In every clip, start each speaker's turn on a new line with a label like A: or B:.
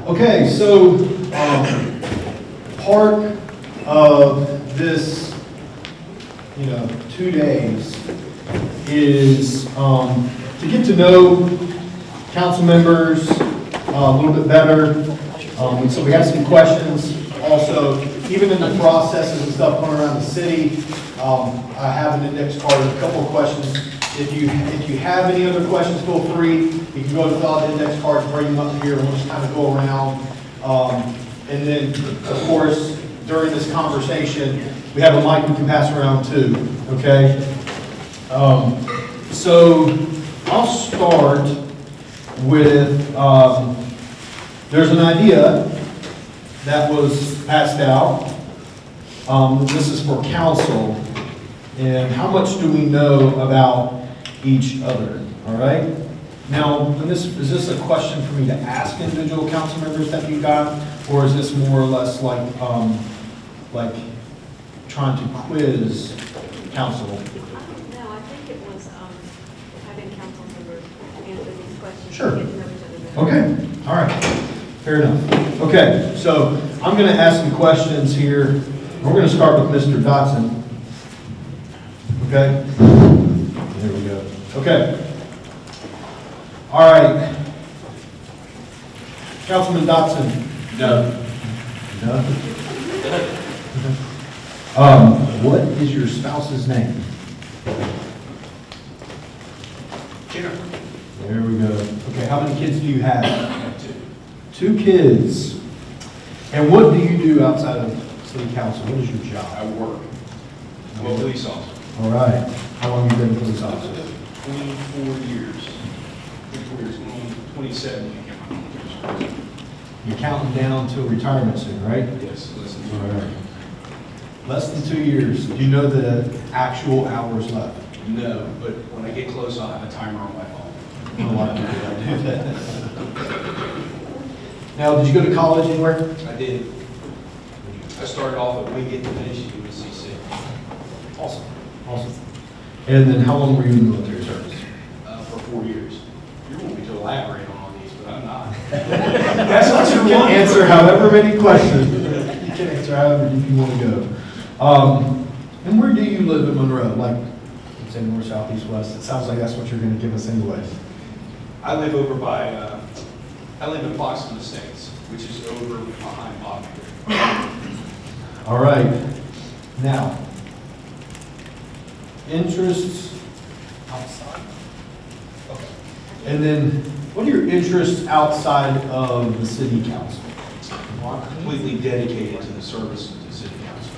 A: Okay, so, um, part of this, you know, two days is, um, to get to know council members uh, a little bit better. Um, and so we have some questions also, even in the processes and stuff going around the city. Um, I have an index card, with a couple of questions. If you, if you have any other questions, feel free. You can go to fill out the index cards, bring them up here, and we'll just kind of go around. Um, and then, of course, during this conversation, we have a mic we can pass around too, okay? Um, so I'll start with, um, there's an idea that was passed out. Um, this is for council. And how much do we know about each other, all right? Now, and this, is this a question for me to ask individual council members that you got? Or is this more or less like, um, like trying to quiz council?
B: No, I think it was um, having council members answer these questions.
A: Sure.
B: get to know each other better.
A: Okay, all right, fair enough. Okay, so I'm going to ask some questions here. We're going to start with Mr. Dotson. Okay? There we go. Okay. All right. Councilman Dotson.
C: No.
A: No? Um, What is your spouse's name? There we go. Okay, how many kids do you have? Two kids. And what do you do outside of city council? What is your job?
C: I work. I'm a police officer.
A: All right. How long have you been a police officer?
C: Twenty-four years. Twenty-four years, twenty- twenty-seven when I got my years.
A: You're counting down to retirement soon, right?
C: Yes, listen.
A: All right. Less than two years. Do you know the actual hours left?
C: No, but when I get close, I'll have a timer on my phone.
A: I don't like the way I do that. Now, did you go to college anywhere?
C: I did, I started off at Wingate and finished at UNCC.
A: Awesome. Awesome. And then how long were you in the military service?
C: uh, for four years. You want me to elaborate on all these, but I'm not. That's what you want.
A: Answer however many questions. You can answer however you want to go. Um, And where do you live in Monroe? Like, let's say north, south, east, west? It sounds like that's what you're going to give us anyways.
C: I live over by, uh, I live in Boston Estates, which is over behind Bobby.
A: All right. Now, interests outside. Okay. And then, what are your interests outside of the city council?
C: Well, I'm completely dedicated to the service of the city council.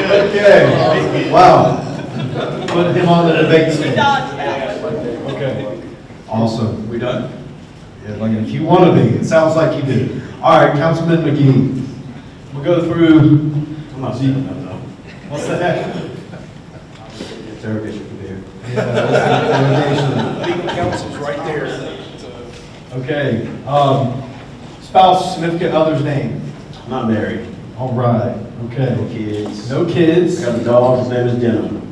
A: Okay, wow. Put him on the debate team. Okay, awesome.
C: We done?
A: Yeah, Like, if you want to be, it sounds like you do. All right, Councilman McGee. We'll go through. Come on, What's that?
D: Interrogation from there.
A: Yeah, that's the delegation.
C: Legal counsel's right there.
A: Okay, um, spouse, significant other's name.
D: I'm not married,
A: All right,
D: no
A: okay.
D: kids.
A: No
D: I
A: kids.
D: got a dog, his name is Denim.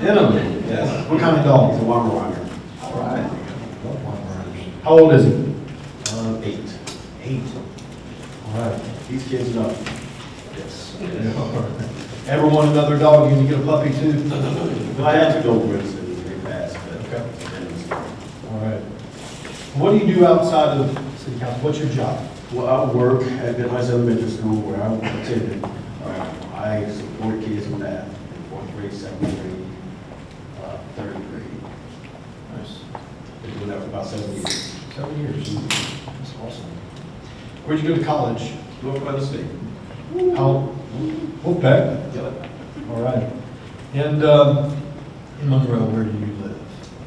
A: Denim.
D: Yes.
A: What kind of
D: He's a
A: dog?
D: Weimaraner,
A: All right. How old is he?
D: uh, eight.
A: Eight. All right.
D: These kids are,
C: Yes.
A: Ever want another dog? You can get a puppy too.
D: if I had to go with it, it'd be fast, but.
A: Okay. All right. What do you do outside of city council? What's your job?
D: Well, I work at the Heights Elementary School where I attended. Uh, I support kids in that, in fourth grade, seventh grade, uh, third grade.
A: Nice.
D: Been doing that for about seven years.
A: Seven years. That's awesome. Where'd you go to college?
D: North Carolina State.
A: How? Okay.
D: Yep.
A: All right. And, um, in Monroe, where do you live?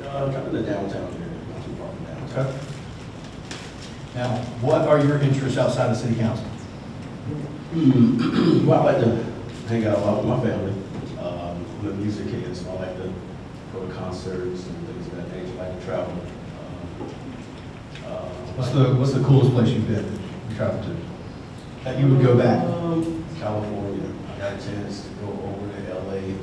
D: Uh, kind of the downtown area, not too far from downtown.
A: Okay. Now, what are your interests outside of city council?
D: Hmm, Well, I like to hang out a lot with my family. Um, I'm a music kid, so I like to go to concerts and things of that nature, I like to travel. Um, uh,
A: What's the, what's the coolest place you've been, and traveled to? That you would go back?
D: Um, California. I got a chance to go over to LA